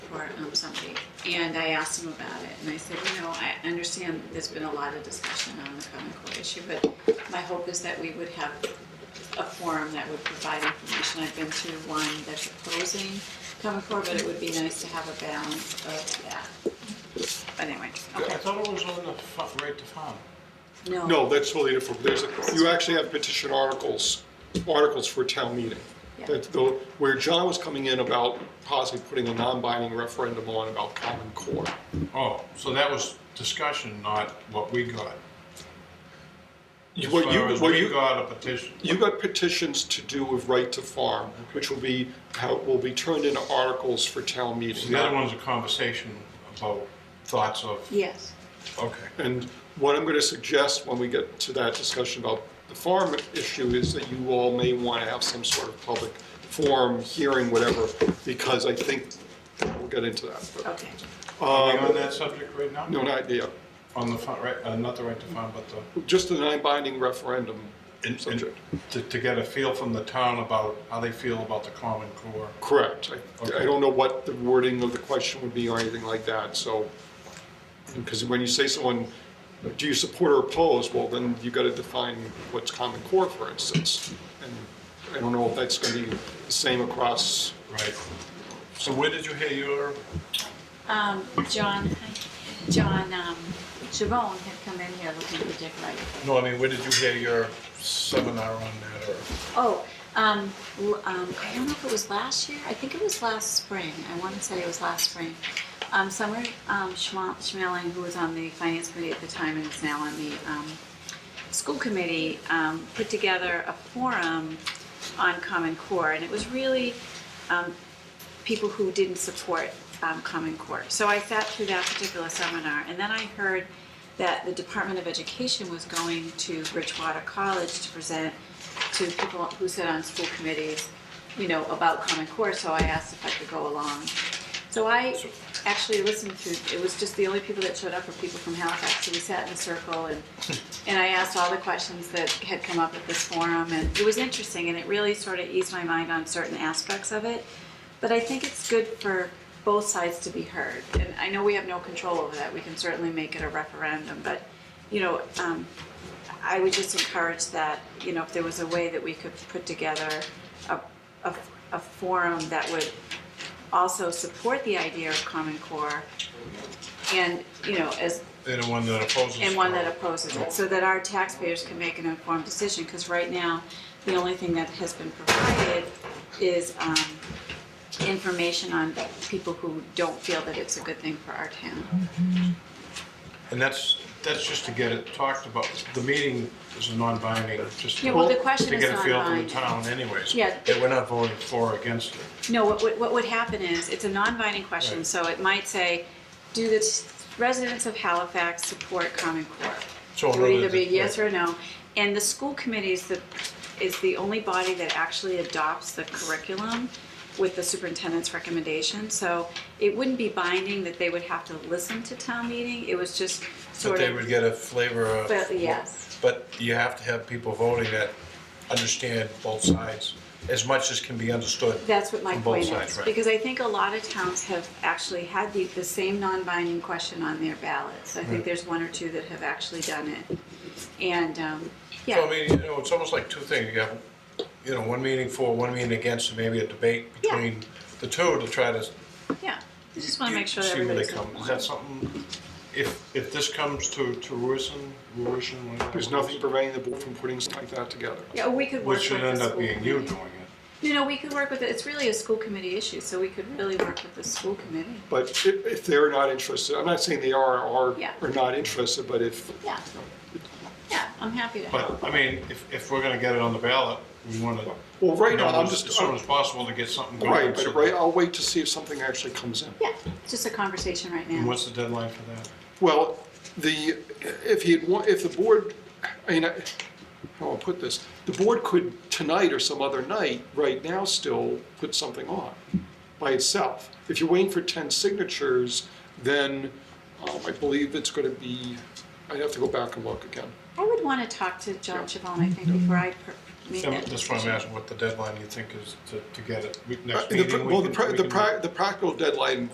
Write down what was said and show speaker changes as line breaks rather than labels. um, Sunday, and I asked him about it, and I said, you know, I understand that there's been a lot of discussion on the Common Core issue, but my hope is that we would have a forum that would provide information. I've been to one that's opposing Common Core, but it would be nice to have a balance of that. But anyway,
I
okay,
thought it was on the fa- right to farm.
no.
No, that's totally different. There's, you actually have petition articles, articles for town meeting.
Yeah.
That though, where John was coming in about possibly putting a non-binding referendum on about Common Core.
Oh, so that was discussion, not what we got.
You-
As
What you,
far as
what
we
you,
got a petition.
you got petitions to do with right to farm, which will be, how, will be turned into articles for town
So
meeting.
The other one's a conversation about thoughts of,
Yes,
okay.
And what I'm going to suggest when we get to that discussion about the farm issue is that you all may want to have some sort of public forum, hearing, whatever, because I think we'll get into that. but-
okay,
Are we on that subject right now?
Um, No, not idea.
On the, fa- right, uh, not the right to farm, but the.
Just a non-binding referendum subject.
To, to get a feel from the town about how they feel about the Common Core.
Correct. I- I
Okay.
don't know what the wording of the question would be or anything like that, so, because when you say someone, do you support or oppose, well, then you got to define what's common core, for instance. And I don't know if that's going to be the same across,
Right. So where did you hear your,
um, John, John, um, Chabon had come in here looking for Dick Wright.
no, I mean, where did you hear your seminar on that or?
Oh, um, l- um, I don't know if it was last year. I think it was last spring. I want to say it was last spring. Um, Summer um, Schma- Schmeling, who was on the finance committee at the time and is now on the um, school committee, um, put together a forum on Common Core, and it was really um, people who didn't support um, Common Core. So I sat through that particular seminar, and then I heard that the Department of Education was going to Bridgewater College to present to people who sit on school committees, you know, about Common Core, so I asked if I could go along. So I actually listened to, it was just the only people that showed up were people from Halifax, so we sat in a circle and, and I asked all the questions that had come up at this forum, and it was interesting, and it really sort of eased my mind on certain aspects of it. But I think it's good for both sides to be heard. And I know we have no control over that. We can certainly make it a referendum, but, you know, um, I would just encourage that, you know, if there was a way that we could put together a, a, a forum that would also support the idea of Common Core and, you know, as,
And the one that opposes.
and one that opposes it, so that our taxpayers can make an informed decision, because right now, the only thing that has been provided is um, information on people who don't feel that it's a good thing for our town.
And that's, that's just to get it talked about. The meeting is a non-binding, just.
Yeah, well, the question is
To get a feel from the
non-binding.
town anyways.
Yeah.
That we're not voting for or against it.
No, what, would- what would happen is, it's a non-binding question,
Right.
so it might say, do the s- residents of Halifax support Common Core?
So
It would
in
either
other
be
words,
yes or no. And the school committee is the, is the only body that actually adopts the curriculum with the superintendent's recommendation. So it wouldn't be binding that they would have to listen to town meeting, it was just
That
sort
they would
of,
get a flavor of.
But, yes.
But you have to have people voting that understand both sides as much as can be understood.
that's what my
from both
point
sides,
is.
right.
Because I think a lot of towns have actually had the, the same non-binding question on their ballots. I think
Right.
there's one or two that have actually done it. And, um, yeah.
So I mean, you know, it's almost like two things. You have, you know, one meeting for, one meeting against, and maybe a debate
Yeah.
between the two to try to
Yeah, I just want to make sure that
See where they
everybody's.
come. Is that something, if, if this comes to, to fruition, fruition? whatever
there's
it
nothing
is,
preventing the board from putting something like that together.
Yeah, we could work with
Which should
the
end up
school
being you
committee.
doing it.
No, no, we could work with it, it's really a school committee issue, so we could really work with the school committee.
But if, if they're not interested, I'm not saying they are or
Yeah.
are not interested, but if,
Yeah. Yeah, I'm happy to help.
But, I mean, if, if we're gonna get it on the ballot, we wanna.
well, right now, I'm
As
just,
soon as possible to get something going.
right,
so-
but right, I'll wait to see if something actually comes in.
Yeah, it's just a conversation right
And
now.
what's the deadline for that?
Well, the, if he, had wa- if the board, I mean, I- how I'll put this, the board could tonight or some other night, right now still, put something on by itself. If you're waiting for 10 signatures, then um, I believe it's going to be, I'd have to go back and look again.
I would want to talk to John Chabon, I think, before I per- make that
That's why I'm
decision.
asking what the deadline you think is to, to get it, We-
Uh,
next
the
meeting.
pr-
we
Well, the
can-
pra-
we
the
can-
pra- the practical deadline